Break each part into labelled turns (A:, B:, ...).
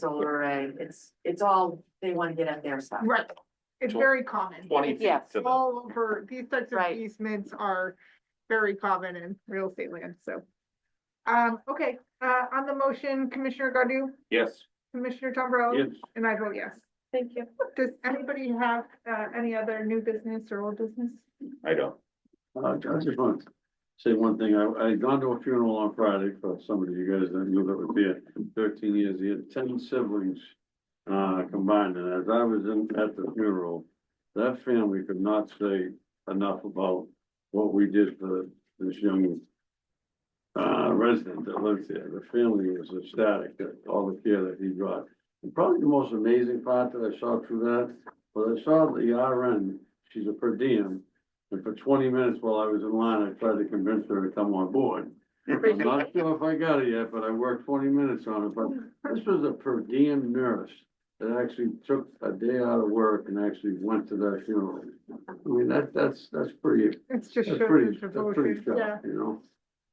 A: solar array, it's, it's all, they wanna get at their stuff.
B: Right, it's
C: Tw-
B: very common.
C: twenty feet
A: Yes.
C: to the,
B: All over, these types of
A: Right.
B: easements are very common in real estate land, so. Um, okay, uh, on the motion, Commissioner Godu,
C: yes,
B: Commissioner Tom Morello,
C: yes,
B: and I vote yes.
A: Thank you.
B: Does anybody have, uh, any other new business or old business?
C: I don't.
D: Uh, I just want to say one thing. I, I had gone to a funeral on Friday for somebody you guys didn't know that was there, thirteen years, he had ten siblings. Uh, combined, and as I was in, at the funeral, that family could not say enough about what we did for this young. Uh, resident that lives there. The family was ecstatic at all the care that he brought. And probably the most amazing part that I saw through that, was I saw the RN, she's a per diem. And for twenty minutes while I was in line, I tried to convince her to come on board. I'm not sure if I got it yet, but I worked twenty minutes on it, but this was a per diem nurse that actually took a day out of work and actually went to that funeral. I mean, that, that's, that's pretty,
B: It's just
D: that's
B: shows
D: pretty,
B: his
D: that's pretty
B: devotion, yeah,
D: tough, you know,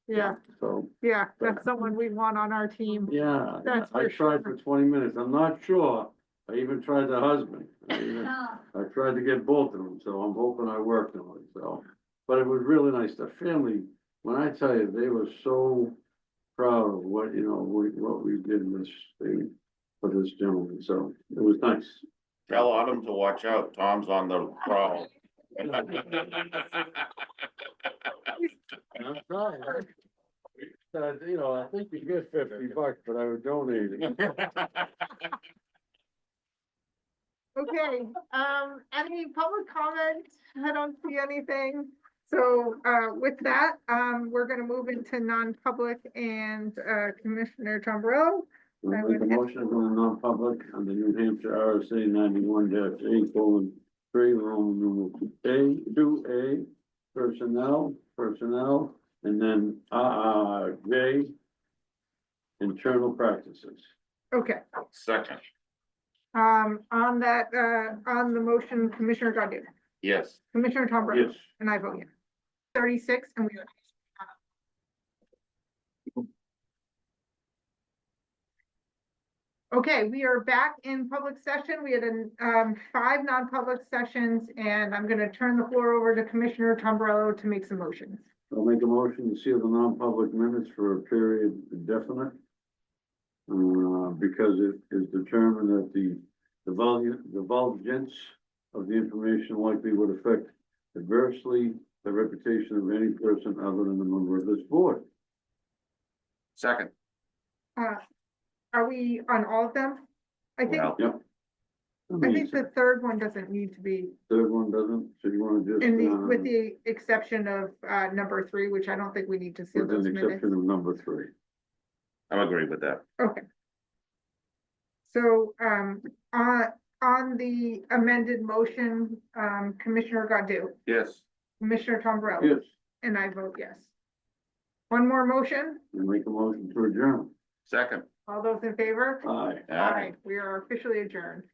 B: yeah,
D: so,
B: yeah, that's someone we want on our team.
D: yeah.
B: That's
D: I
B: for
D: tried for
B: sure.
D: twenty minutes, I'm not sure, I even tried the husband. I even-
A: Mm.
D: I tried to get both of them, so I'm hoping I worked on it, so. But it was really nice, the family, when I tell you, they were so proud of what, you know, we, what we did in this thing for this gentleman, so it was nice.
C: Tell Autumn to watch out, Tom's on the prowl.
D: I'm sorry. Uh, you know, I think you get fifty bucks, but I would donate it.
B: Okay, um, any public comment? I don't see anything. So, uh, with that, um, we're gonna move into non-public and, uh, Commissioner Tombrello.
D: I make a motion to go in non-public under New Hampshire RSA ninety-one dash eight colon three, Roman numeral A, two A, personnel, personnel, and then, uh, uh, J, internal practices.
B: Okay,
C: Second,
B: um, on that, uh, on the motion, Commissioner Godu,
C: yes,
B: Commissioner Tombrello,
D: Yes,
B: and I vote yes. Thirty-six and we. Okay, we are back in public session. We had um five non-public sessions and I'm gonna turn the floor over to Commissioner Tombrello to make some motions.
D: I'll make a motion to seal the non-public minutes for a period indefinite. Uh, because it is determined that the, the volume, the vulgence of the information likely would affect adversely the reputation of any person other than a member of this board.
C: second,
B: Uh, are we on all of them? I think,
C: well,
B: I think the third one doesn't need to be
D: Third one doesn't, so you wanna just.
B: in the,
D: uh,
B: with the exception of uh number three, which I don't think we need to seal
D: With
B: those
D: an
B: minutes.
D: exception of number three.
C: I'm agree with that.
B: Okay. So, um, on, on the amended motion, um, Commissioner Godu,
C: Yes,
B: Commissioner Tom Morello,
D: Yes,
B: and I vote yes. One more motion,
D: and make a motion to adjourn.
C: second.
B: all those in favor?
D: Aye.
C: All right.
B: We are officially adjourned.